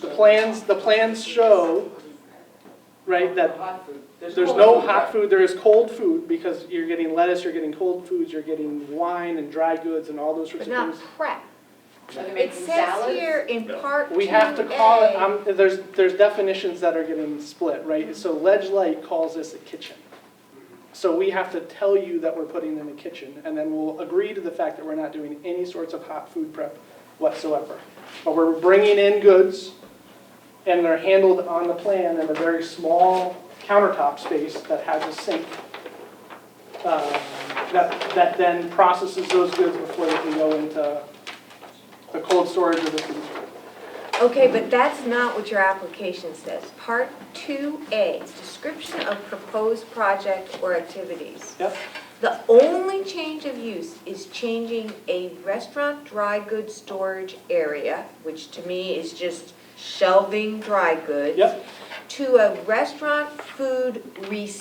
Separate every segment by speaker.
Speaker 1: The plans, the plans show, right, that
Speaker 2: Hot food.
Speaker 1: There's no hot food, there is cold food, because you're getting lettuce, you're getting cold foods, you're getting wine and dry goods and all those sorts
Speaker 3: but
Speaker 1: of
Speaker 3: not
Speaker 1: things.
Speaker 3: prep.
Speaker 2: Are they
Speaker 3: It
Speaker 2: making
Speaker 3: says
Speaker 2: salads?
Speaker 3: here in part
Speaker 1: We have to call it,
Speaker 3: 2A.
Speaker 1: um, there's, there's definitions that are getting split, right? So Ledge Light calls this a kitchen. So we have to tell you that we're putting in a kitchen, and then we'll agree to the fact that we're not doing any sorts of hot food prep whatsoever. But we're bringing in goods, and they're handled on the plan in a very small countertop space that has a sink um, that, that then processes those goods before they can go into the cold storage or the food storage.
Speaker 3: Okay, but that's not what your application says. Part 2A, description of proposed project or activities.
Speaker 1: Yep.
Speaker 3: The only change of use is changing a restaurant dry goods storage area, which to me is just shelving dry goods.
Speaker 1: Yep.
Speaker 3: To a restaurant food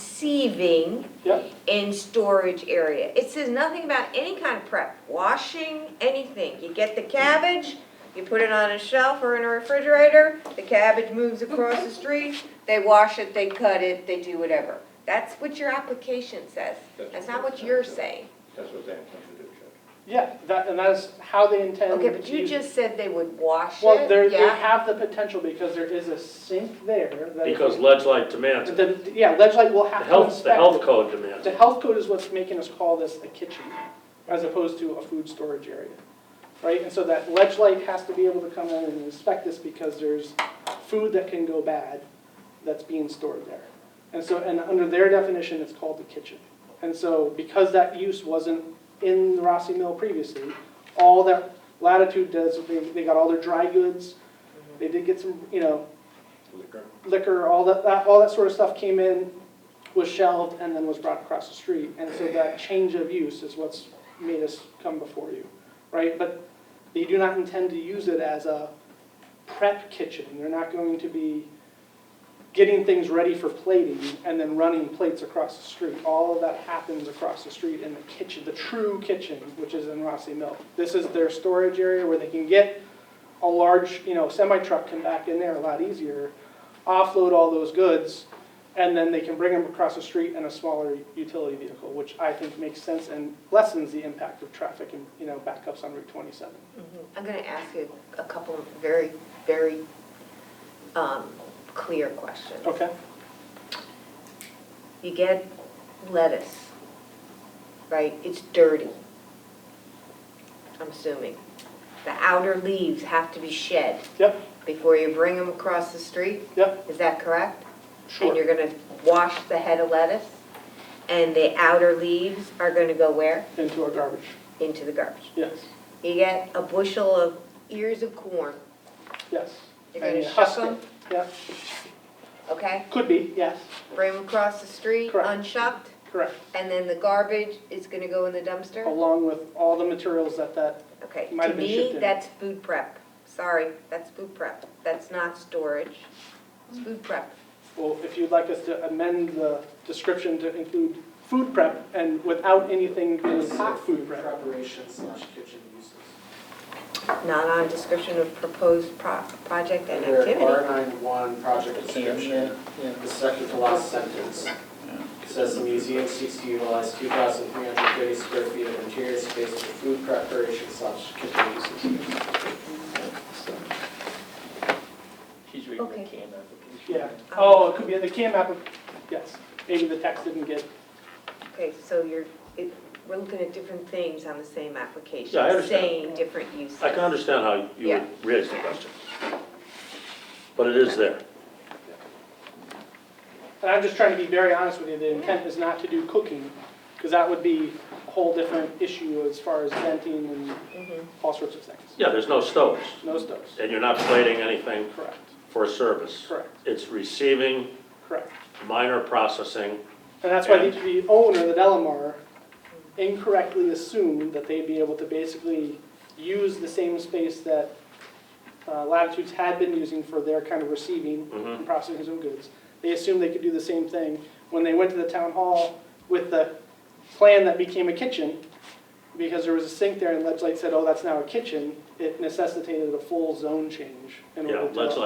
Speaker 3: receiving
Speaker 1: Yep.
Speaker 3: and storage area. It says nothing about any kind of prep, washing, anything. You get the cabbage, you put it on a shelf or in a refrigerator, the cabbage moves across the street, they wash it, they cut it, they do whatever. That's what your application says. That's not what you're saying.
Speaker 4: That's what they intend to do, Judge.
Speaker 1: Yeah, that, and that's how they intend to
Speaker 3: Okay, but you
Speaker 1: use it.
Speaker 3: just said they would wash
Speaker 1: Well, they're,
Speaker 3: it,
Speaker 1: they
Speaker 3: yeah?
Speaker 1: have the potential because there is a sink there that.
Speaker 5: Because Ledge Light demands, it.
Speaker 1: The, yeah, Ledgelight will
Speaker 5: the
Speaker 1: have to
Speaker 5: health,
Speaker 1: inspect.
Speaker 5: the health
Speaker 1: it.
Speaker 5: code demands
Speaker 1: The
Speaker 5: it.
Speaker 1: health code is what's making us call this a kitchen as opposed to a food storage area, right? And so that Ledgelight has to be able to come in and inspect this because there's food that can go bad that's being stored there. And so, and under their definition, it's called the kitchen. And so because that use wasn't in the Rossi Mill previously, all that Latitude does, they, they got all their dry goods. They did get some, you know,
Speaker 4: Liquor.
Speaker 1: liquor, all that, that, all that sort of stuff came in, was shelved, and then was brought across the street. And so that change of use is what's made us come before you, right? But they do not intend to use it as a prep kitchen. They're not going to be getting things ready for plating and then running plates across the street. All of that happens across the street in the kitchen, the true kitchen, which is in Rossi Mill. This is their storage area where they can get a large, you know, semi-truck come back in there a lot easier, offload all those goods, and then they can bring them across the street in a smaller utility vehicle, which I think makes sense and lessens the impact of traffic and, you know, backups on Route 27.
Speaker 3: Mm-hmm. I'm gonna ask you a couple of very, very, um, clear questions.
Speaker 1: Okay?
Speaker 3: You get lettuce, right? It's dirty. I'm assuming. The outer leaves have to be shed
Speaker 1: Yep,
Speaker 3: before you bring them across the street,
Speaker 1: yep,
Speaker 3: is that correct? And
Speaker 1: sure.
Speaker 3: you're gonna wash the head of lettuce, and the outer leaves are gonna go where?
Speaker 1: Into our garbage,
Speaker 3: Into the garbage.
Speaker 1: yes,
Speaker 3: You get a bushel of ears of corn,
Speaker 1: yes.
Speaker 3: You're gonna
Speaker 1: And
Speaker 3: shuck
Speaker 1: husk it.
Speaker 3: 'em?
Speaker 1: Yeah,
Speaker 3: okay?
Speaker 1: could be, yes,
Speaker 3: Bring them across the street,
Speaker 1: Correct.
Speaker 3: unshucked,
Speaker 1: correct.
Speaker 3: and then the garbage is gonna go in the dumpster?
Speaker 1: Along with all the materials that that,
Speaker 3: Okay,
Speaker 1: Might
Speaker 3: to
Speaker 1: have been shipped
Speaker 3: me,
Speaker 1: in.
Speaker 3: that's food prep. Sorry, that's food prep. That's not storage. It's food prep.
Speaker 1: well, if you'd like us to amend the description to include food prep and without anything being hot food prep.
Speaker 6: Preparation slash kitchen uses.
Speaker 3: Not on description of proposed pro- project and
Speaker 6: Under
Speaker 3: activity.
Speaker 6: R nine one project description, the second to last sentence says the museum seeks to utilize two thousand three hundred thirty square feet of interior space for food preparation slash kitchen uses.
Speaker 4: He's reading the
Speaker 3: Okay.
Speaker 4: CAM application.
Speaker 1: Yeah, oh, it could be, the CAM app, yes, maybe the text didn't get,
Speaker 3: Okay, so you're, it- we're looking at different things on the same application.
Speaker 5: Yeah, I understand.
Speaker 3: Same different uses.
Speaker 5: I can understand how you
Speaker 3: Yeah.
Speaker 5: would raise the question. But it is there.
Speaker 1: and I'm just trying to be very honest with you, the intent is not to do cooking, because that would be a whole different issue as far as venting and
Speaker 3: Mhm.
Speaker 1: all sorts of things.
Speaker 5: Yeah, there's no stoves,
Speaker 1: No stoves,
Speaker 5: and you're not plating anything
Speaker 1: correct,
Speaker 5: for service.
Speaker 1: correct,
Speaker 5: It's receiving,
Speaker 1: correct.
Speaker 5: minor processing,
Speaker 1: And that's why the- the owner, the Delamar, incorrectly assumed that they'd be able to basically use the same space that uh, Latitudes had been using for their kind of receiving
Speaker 5: Mhm.
Speaker 1: and processing of goods. They assumed they could do the same thing. When they went to the town hall with the plan that became a kitchen, because there was a sink there and Ledge Light said, oh, that's now a kitchen, it necessitated a full zone change in
Speaker 5: Yeah,
Speaker 1: order to.
Speaker 5: Ledge Light